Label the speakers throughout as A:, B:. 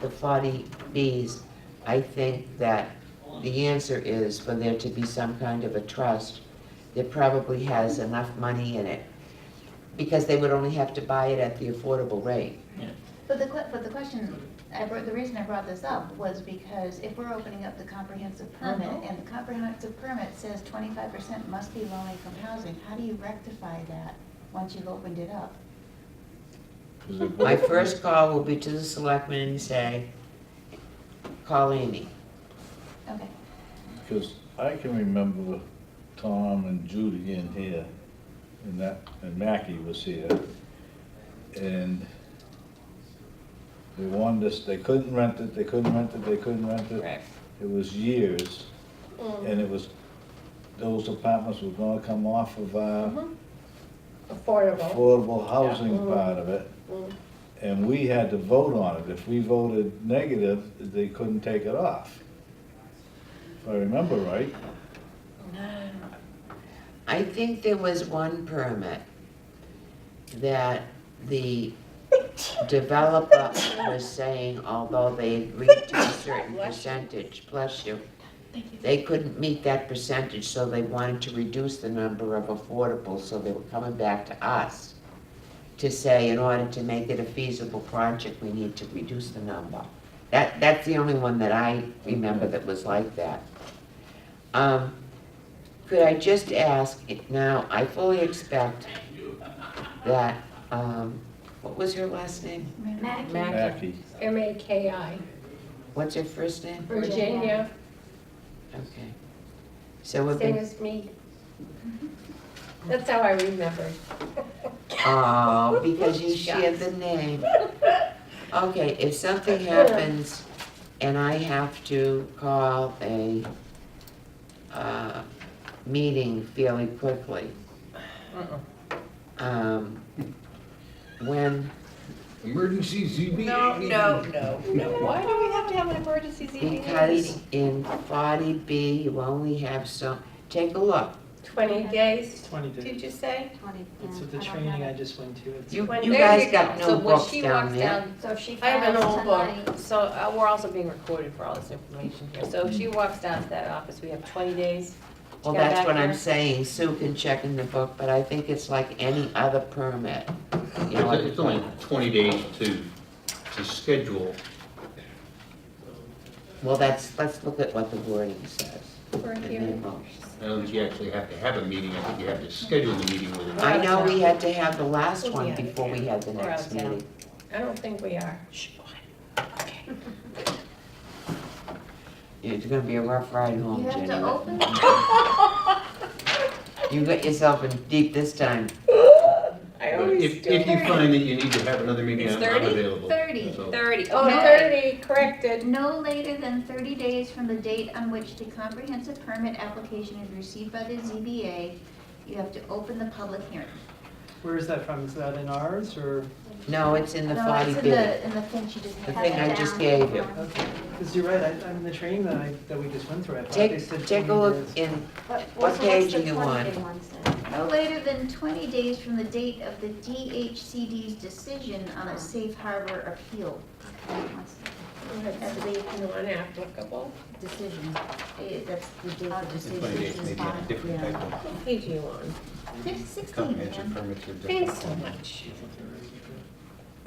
A: the 40Bs, I think that the answer is for there to be some kind of a trust that probably has enough money in it, because they would only have to buy it at the affordable rate.
B: But the, que- but the question, I brought, the reason I brought this up was because if we're opening up the comprehensive permit, and the comprehensive permit says twenty-five percent must be low income housing, how do you rectify that once you've opened it up?
A: My first call will be to the selectmen and say, call Amy.
B: Okay,
C: Because I can remember Tom and Judy in here, and that, and Mackey was here, and they wanted us, they couldn't rent it, they couldn't rent it, they couldn't rent it. It was years,
D: Mm.
C: and it was, those apartments were gonna come off of our
D: Mm-hmm. Affordable.
C: affordable housing
D: Mhm.
C: part of it,
D: Mm.
C: and we had to vote on it. If we voted negative, they couldn't take it off. If I remember right.
A: I think there was one permit that the developer was saying, although they agreed to a certain percentage, bless you,
B: thank you.
A: they couldn't meet that percentage, so they wanted to reduce the number of affordables, so they were coming back to us to say, in order to make it a feasible project, we need to reduce the number. That, that's the only one that I remember that was like that. Um, could I just ask, it now, I fully expect that, um, what was her last name?
D: Mackey.
E: Mackey,
C: Mackey.
D: M A K I,
A: What's her first name?
D: Virginia,
A: Okay. So we've
D: same
A: been,
D: as me. That's how I remembered.
A: oh, because you shared the name. Okay, if something happens and I have to call a, uh, meeting fairly quickly, um, when,
F: Emergency ZB.
E: No, no, no, no. Why do we have to have an emergency ZBA
A: because
E: meeting?
A: in forty B, you only have so, take a look.
D: Twenty days,
G: Twenty days.
E: Did you say?
G: It's the training I just went to. It's-
A: You,
E: When-
A: you
E: there
A: guys
E: you
A: got
E: go.
A: no books
H: So when she
A: down
H: walks
A: there.
H: down,
B: So if she
H: I have an
B: files
H: old
B: tonight-
H: book, so uh, we're also being recorded for all this information here. So if she walks down to that office, we have 20 days.
A: Well,
H: Yeah,
A: that's
H: back
A: what I'm
H: there.
A: saying, Sue can check in the book, but I think it's like any other permit. You know,
F: It's only twenty days to, to schedule.
A: Well, that's, let's look at what the wording says.
D: we're
A: in the
D: here.
A: motion.
F: I don't think you actually have to have a meeting, I think you have to schedule the meeting with it.
A: I know we had to have the last
D: We'll be
A: one
D: out of
A: before we had the
H: We're
A: next
H: out of town.
A: meeting.
D: I don't think we are.
A: It's gonna be a rough ride home,
B: You have
A: Jenny.
B: to open
A: You got yourself in deep this time.
D: I
F: But
D: always
F: If,
D: do.
F: if you find that you need to have another meeting,
H: It's
F: I'm
H: 30?
F: available.
B: 30.
F: So-
H: 30,
D: Oh,
B: No.
H: okay.
D: thirty, corrected.
B: No later than thirty days from the date on which the comprehensive permit application is received by the ZBA, you have to open the public hearing.
G: Where is that from? Is that in ours or?
A: No, it's in the
B: No, it's
A: forty
B: in
A: B.
B: the, in the thing she just
A: The
B: handed
A: thing I
B: down.
A: just gave you.
G: Because you're right, I, I'm in the training that I, that we just went through. I thought they
A: Take,
G: said
A: take a
G: 20
A: look
G: days.
A: in,
I: What,
A: What
I: so what's
A: page
I: the
A: do you want?
I: 20-day one say?
B: No later than twenty days from the date of the DHCD's decision on a safe harbor appeal. What's
D: Let's see, you want applicable?
I: Decision,
B: the- eh, That's
I: the date of
F: It's
I: decision.
F: Twenty days,
I: is
F: maybe a
I: fine.
F: different
I: Yeah.
F: type of
D: What page are you on?
B: fif- sixteen,
F: comprehensive
B: man.
F: permits are different.
D: Thanks so much.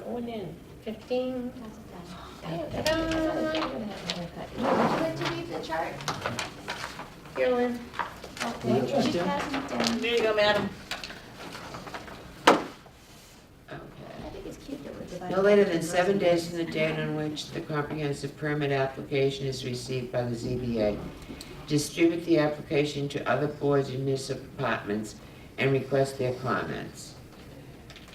D: Going in, fifteen.
I: That's okay.
D: Ta-da.
B: Would you leave the chart?
D: Here, Lynn.
B: Okay,
G: Yeah.
B: she's passing it down.
H: There you go, madam.
A: okay.
B: I think it's cute that we're dividing.
A: No later than seven days from the date on which the comprehensive permit application is received by the ZBA. Distribute the application to other boards and municipal departments and request their comments.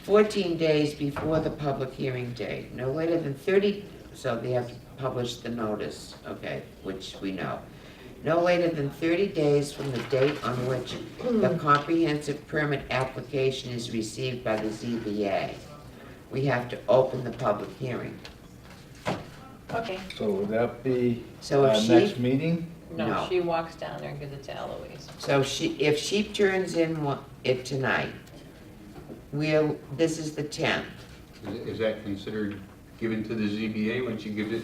A: Fourteen days before the public hearing date, no later than thirty, so they have to publish the notice, okay, which we know. No later than thirty days from the date on which the comprehensive permit application is received by the ZBA we have to open the public hearing.
H: Okay.
C: So would that be
A: So
C: our
A: if
C: next
A: she,
C: meeting?
H: No,
A: No.
H: she walks down there and gives it to Eloise.
A: so she, if she turns in one- it tonight, we'll, this is the tenth.
F: Is- Is that considered given to the ZBA when she gives it